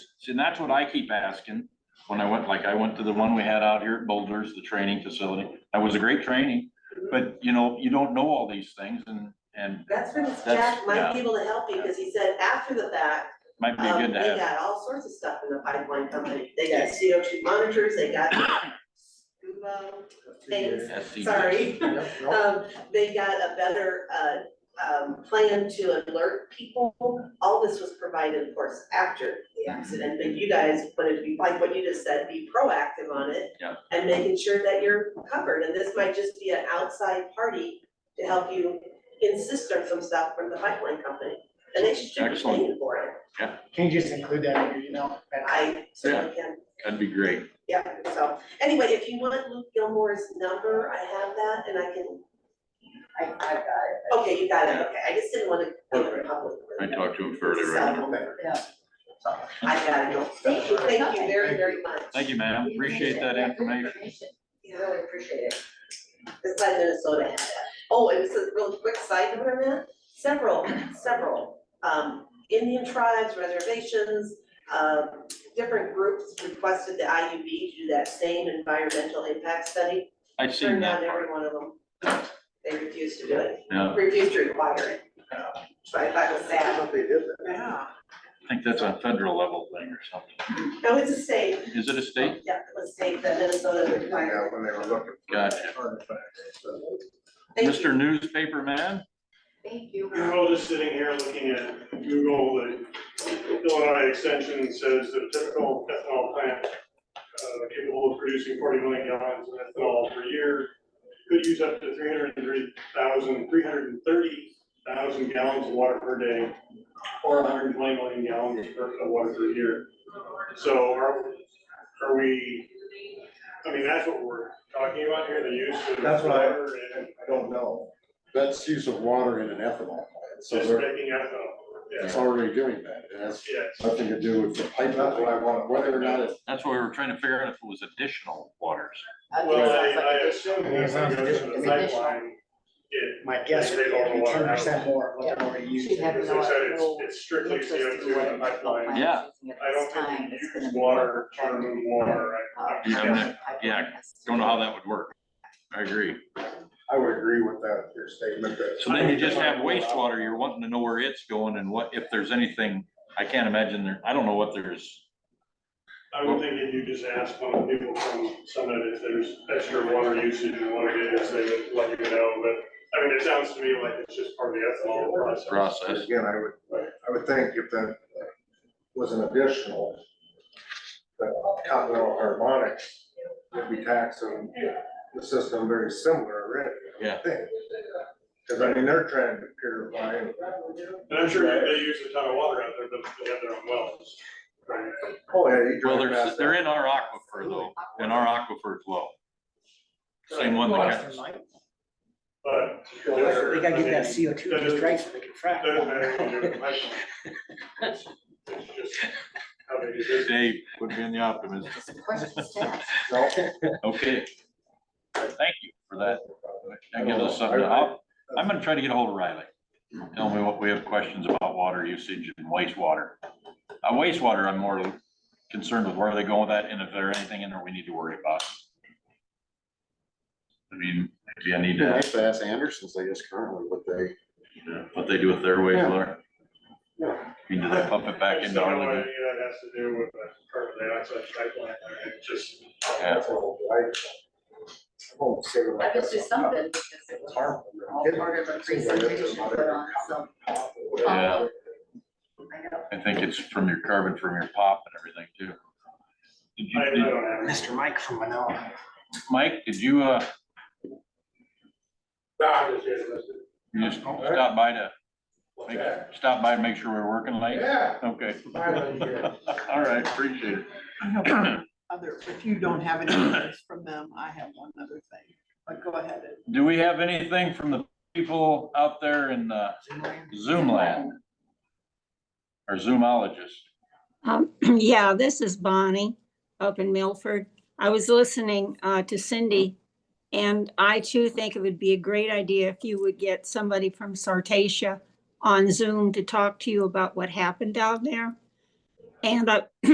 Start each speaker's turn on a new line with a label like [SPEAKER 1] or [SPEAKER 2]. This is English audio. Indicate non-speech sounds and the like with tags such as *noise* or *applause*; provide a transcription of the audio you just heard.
[SPEAKER 1] See, and that's what I keep asking when I went, like, I went to the one we had out here at Boulders, the training facility. That was a great training, but you know, you don't know all these things and, and
[SPEAKER 2] That's when
[SPEAKER 1] That's-
[SPEAKER 2] Jack might be
[SPEAKER 1] yeah.
[SPEAKER 2] able to help you, because he said after the fact,
[SPEAKER 1] might be
[SPEAKER 2] um,
[SPEAKER 1] good
[SPEAKER 2] they
[SPEAKER 1] to have.
[SPEAKER 2] got all sorts of stuff in the pipeline company. They got CO two monitors,
[SPEAKER 1] *coughs*
[SPEAKER 2] they got scuba things,
[SPEAKER 1] SCBA.
[SPEAKER 2] sorry.
[SPEAKER 3] Yep, no.
[SPEAKER 2] Um, they got a better, uh, um, plan to alert people. All this was provided, of course, after
[SPEAKER 1] Mhm.
[SPEAKER 2] the accident, but you guys wanted to be, like what you just said, be proactive on it.
[SPEAKER 1] Yeah.
[SPEAKER 2] And making sure that you're covered, and this might just be an outside party to help you insist on some stuff from the pipeline company. And they should be
[SPEAKER 1] Excellent.
[SPEAKER 2] paying for it.
[SPEAKER 3] Can you just include that in your email?
[SPEAKER 2] I certainly can
[SPEAKER 1] That'd be great.
[SPEAKER 2] yeah, so, anyway, if you want Luke Gilmore's number, I have that, and I can. I, I've got it. Okay, you got it, okay, I just didn't wanna give it public.
[SPEAKER 1] I talked to him fairly regularly.
[SPEAKER 2] I got it, thank you, thank you very, very much.
[SPEAKER 1] Thank you, ma'am. Appreciate that information.
[SPEAKER 2] Yeah, I really appreciate it. It's like Minnesota had that. Oh, and it's a real quick side note on that, several, several, um, Indian tribes, reservations, uh, different groups requested the IUB to do that same environmental impact study.
[SPEAKER 1] I've seen
[SPEAKER 2] Turned down
[SPEAKER 1] that part.
[SPEAKER 2] every one of them. They refused to do it,
[SPEAKER 1] Yeah,
[SPEAKER 2] refused to require it. So I thought it was
[SPEAKER 3] I
[SPEAKER 2] sad.
[SPEAKER 3] hope they did that.
[SPEAKER 2] Yeah.
[SPEAKER 1] I think that's a federal level thing or something.
[SPEAKER 2] No, it's a state,
[SPEAKER 1] Is it a state?
[SPEAKER 2] yeah, it was state that Minnesota
[SPEAKER 3] Yeah,
[SPEAKER 2] required.
[SPEAKER 3] when they were looking. for
[SPEAKER 1] Gotcha.
[SPEAKER 3] artifacts, so.
[SPEAKER 2] Thank you.
[SPEAKER 1] Mr. Newspaper Man?
[SPEAKER 4] Thank you.
[SPEAKER 5] Google just sitting here looking at Google, the Illinois extension says that a typical ethanol plant uh, capable of producing forty million gallons of ethanol per year could use up to three hundred and thirty thousand, three hundred and thirty thousand gallons of water per day or hundred and twenty million gallons per- of water per year. So are, are we, I mean, that's what we're talking about here, the use of
[SPEAKER 3] That's what I-
[SPEAKER 5] water and
[SPEAKER 3] I don't know. That's use of water in an ethanol plant, so
[SPEAKER 5] just
[SPEAKER 3] they're,
[SPEAKER 5] making ethanol.
[SPEAKER 3] it's
[SPEAKER 5] Yeah,
[SPEAKER 3] already doing that. It has
[SPEAKER 5] yes.
[SPEAKER 3] nothing to do with the pipe, whether or not it.
[SPEAKER 1] That's what we were trying to figure out if it was additional waters.
[SPEAKER 4] Uh,
[SPEAKER 5] Well, I, I assume
[SPEAKER 6] Yeah, it
[SPEAKER 5] this
[SPEAKER 6] sounds
[SPEAKER 5] goes to
[SPEAKER 4] additional.
[SPEAKER 5] the pipeline. It,
[SPEAKER 6] My guess would be ten percent more, what they're already
[SPEAKER 4] She'd
[SPEAKER 6] using.
[SPEAKER 4] have
[SPEAKER 5] as
[SPEAKER 4] no-
[SPEAKER 5] I said, it's,
[SPEAKER 4] no
[SPEAKER 5] it's strictly CO two in the pipeline.
[SPEAKER 1] Yeah.
[SPEAKER 5] I don't think you use water, trying to move water,
[SPEAKER 4] Uh,
[SPEAKER 5] I, I
[SPEAKER 1] You
[SPEAKER 5] can't-
[SPEAKER 1] have no- yeah, Don't know how that would work. I agree.
[SPEAKER 3] I would agree with that, your statement that.
[SPEAKER 1] So then you just have wastewater, you're wanting to know where it's going and what, if there's anything, I can't imagine there, I don't know what there's.
[SPEAKER 5] I would think if you just ask one of the people from Summit if there's extra water usage in one of it, if they would let you know, but, I mean, it sounds to me like it's just part of the ethanol process.
[SPEAKER 1] Process.
[SPEAKER 3] Again, I would, I would think if that was an additional, that continental harmonics would be taxing the system very similar already. I would
[SPEAKER 1] Yeah.
[SPEAKER 3] think. Cause I mean, they're trying to purify and oh,
[SPEAKER 5] And I'm sure they use a ton of water out there, but they have their own wells. Right.
[SPEAKER 3] Oh, yeah, you
[SPEAKER 1] Well,
[SPEAKER 3] drive
[SPEAKER 1] they're,
[SPEAKER 3] past
[SPEAKER 1] they're
[SPEAKER 3] that.
[SPEAKER 1] in our aquifer though, in our aquifer as well. Same one that
[SPEAKER 6] Lost
[SPEAKER 1] got,
[SPEAKER 6] their mind.
[SPEAKER 5] But.
[SPEAKER 6] They gotta get that CO two
[SPEAKER 5] That is-
[SPEAKER 6] just right so they can frack.
[SPEAKER 5] Doesn't matter if you do it in Python. It's it's just how they do business.
[SPEAKER 1] Dave would be in the optimist.
[SPEAKER 4] Questions *laughs* to ask.
[SPEAKER 1] Okay. Thank you for that. That gives us something. I'll- I'm gonna try to get a hold of Riley. Tell me what we have questions about water usage and wastewater. Uh, wastewater, I'm more concerned with where they go with that and if there's anything in there we need to worry about. I mean, maybe I need to ask
[SPEAKER 7] Nice to ask Anderson's, I guess currently what they,
[SPEAKER 1] what they do with their wastewater.
[SPEAKER 7] Yeah.
[SPEAKER 1] I mean, do they pump it back
[SPEAKER 5] It's
[SPEAKER 1] into
[SPEAKER 5] not
[SPEAKER 1] our
[SPEAKER 5] like
[SPEAKER 1] lagoon?
[SPEAKER 5] That has to do with the carbon dioxide pipeline, I mean, it's just.
[SPEAKER 1] Yeah.
[SPEAKER 4] I guess there's something because it was all part of a presentation put on some.
[SPEAKER 1] Yeah.
[SPEAKER 4] I know.
[SPEAKER 1] I think it's from your carbon from your pop and everything too. Did
[SPEAKER 5] I, I
[SPEAKER 1] you, did-
[SPEAKER 5] don't have.
[SPEAKER 6] Mr. Mike from Manila.
[SPEAKER 1] Mike, did you, uh,
[SPEAKER 5] Nah, it's just-
[SPEAKER 1] you just stop by to, make- stop by and make sure we're working late?
[SPEAKER 3] Yeah.
[SPEAKER 1] Okay. *laughs*
[SPEAKER 3] Finally, yeah.
[SPEAKER 1] All right, appreciate it.
[SPEAKER 8] I have one Other, if you don't have
[SPEAKER 1] *coughs*
[SPEAKER 8] any letters from them, I have one other thing, but go ahead. and-
[SPEAKER 1] Do we have anything from the people out there in uh, Zoom land? Or Zoomologists?
[SPEAKER 9] Um, *clears throat* Yeah, this is Bonnie up in Milford. I was listening uh, to Cindy, and I too think it would be a great idea if you would get somebody from Sartasia on Zoom to talk to you about what happened down there. And I,